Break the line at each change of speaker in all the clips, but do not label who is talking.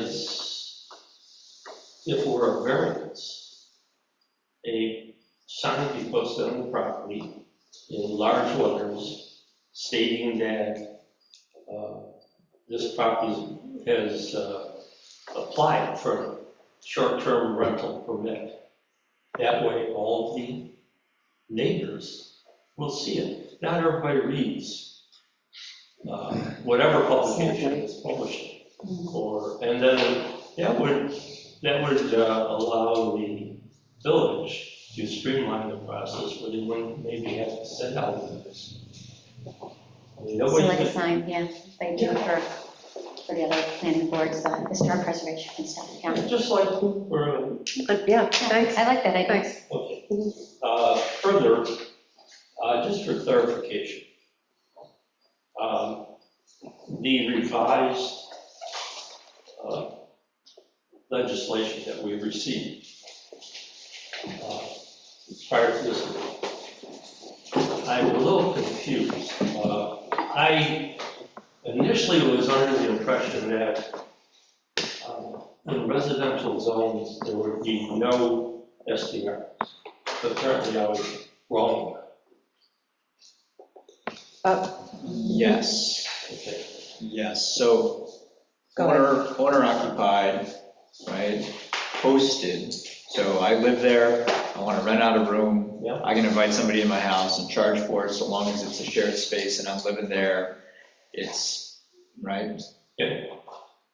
as if we're a variance. A sign be posted on the property in large letters stating that uh, this property has uh, applied for short-term rental permit. That way, all the neighbors will see it. Not everybody reads uh, whatever publication is published. Or, and then that would, that would uh, allow the village to streamline the process, where they wouldn't maybe have to send out notice. I mean,
So
nobody's
like a
gonna-
sign, yeah, they do for, for the other planning boards, uh, historic preservation and stuff, yeah.
Just like for a
But yeah, thanks.
I like that idea.
Thanks.
Okay. Uh, Further, uh, just for clarification, um, the revised uh, legislation that we received uh, prior to this, I'm a little confused. Uh, I initially was under the impression that um, in residential zones, there would be no SDR, but apparently I was wrong.
Yes,
Okay.
yes, so
Go ahead.
owner, owner occupied, right, posted, so I live there, I want to rent out a room,
Yeah.
I can invite somebody in my house and charge for it, so long as it's a shared space and I'm living there, it's, right?
Yeah.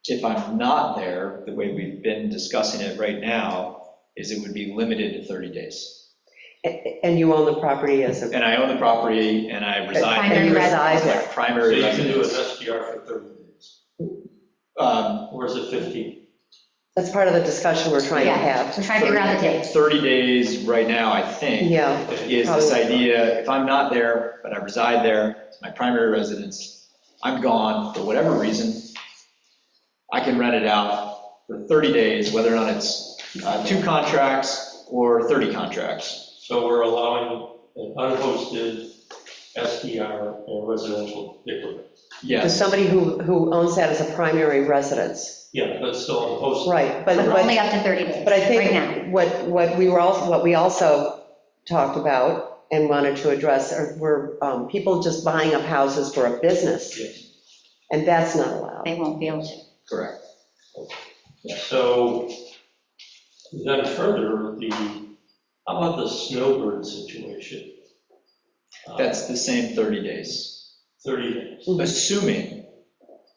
If I'm not there, the way we've been discussing it right now, is it would be limited to 30 days.
A- And you own the property as a,
And I own the property and I reside.
and you
Primary
reside
It's
there.
like
So
primary
you can do an
residence.
SDR for 30 days,
Um,
or is it 15?
That's part of the discussion we're trying to
Yeah.
have.
We're trying to figure out the date.
30 days right now, I think,
Yeah,
is this idea, if I'm not there, but I reside there, it's my primary residence, I'm gone for whatever reason, I can rent it out for 30 days, whether or not it's uh, two contracts or 30 contracts.
So we're allowing an unhosted SDR in residential neighborhood.
to
Yes,
somebody who, who owns that as a primary residence.
Yeah, but still unhosted.
Right, but,
But only
but,
up to 30 days,
but I
right now.
think what, what we were also, what we also talked about and wanted to address are- were um, people just buying up houses for a business.
Yes.
And that's not allowed.
They won't be able to.
correct.
So then further, the, how about the snowbird situation? Uh,
That's the same 30 days,
30 days.
assuming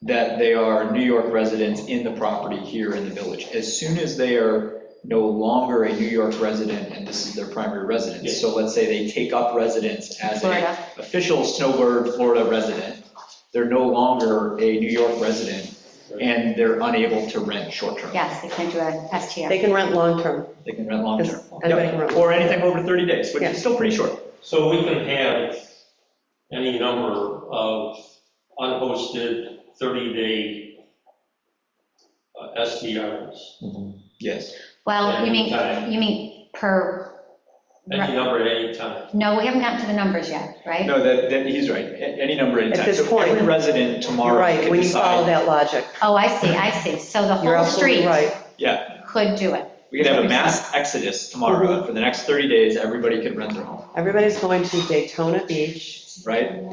that they are New York residents in the property here in the village. As soon as they are no longer a New York resident and this is their primary residence, so let's say they take up residence as a
Florida,
official snowbird Florida resident. They're no longer a New York resident, and they're unable to rent short-term.
yes, they can do a STR.
They can rent long-term.
They can rent long-term.
Anybody can rent.
Or anything over 30 days, which
Yeah.
is still pretty short.
So we can have any number of unhosted 30-day uh, SDRs.
Mm-hmm. Yes.
Well, you mean,
Anytime.
you mean per,
Any number at any time.
no, we haven't gotten to the numbers yet, right?
No, that, that, he's right, A- any number at any
At
time.
this
So
point,
Every resident
You're
tomorrow
right,
can
when you follow
decide,
that logic.
Oh, I see, I see. So the
You're
whole
absolutely
street
right.
could do it.
we could have a mass exodus tomorrow, for the next 30 days, everybody can rent their home,
Everybody's going to Daytona Beach.
right?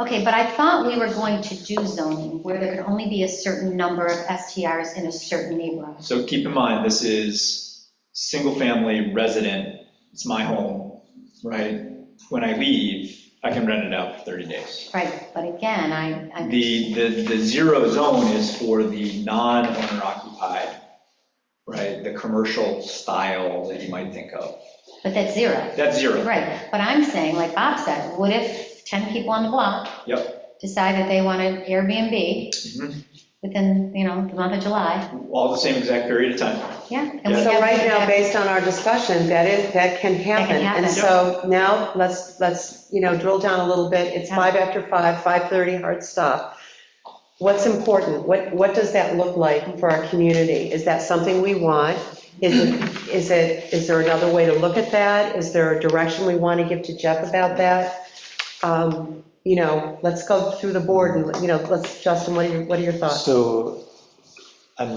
Okay, but I thought we were going to do zoning where there could only be a certain number of STRs in a certain neighborhood.
So keep in mind, this is single-family resident, it's my home, right? When I leave, I can rent it out for 30 days.
Right, but again, I, I.
The, the, the zero zone is for the non-owner occupied, right? The commercial style that you might think of.
But that's zero.
That's zero.
Right, but I'm saying, like Bob said, what if 10 people on the block? Decide that they wanted Airbnb
Mhm.
within, you know, the month of July,
All the same exact period of time.
yeah. and we
So
have-
right now, based on our discussion, that is, that can happen.
happen.
And so now, let's, let's, you know, drill down a little bit. It's
Yeah.
five after five, 5:30, hard stop. What's important? What, what does that look like for our community? Is that something we want? Is it, is it, is there another way to look at that? Is there a direction we want to give to Jeff about that? Um, You know, let's go through the board and, you know, let's, Justin, what are your, what are your thoughts?
So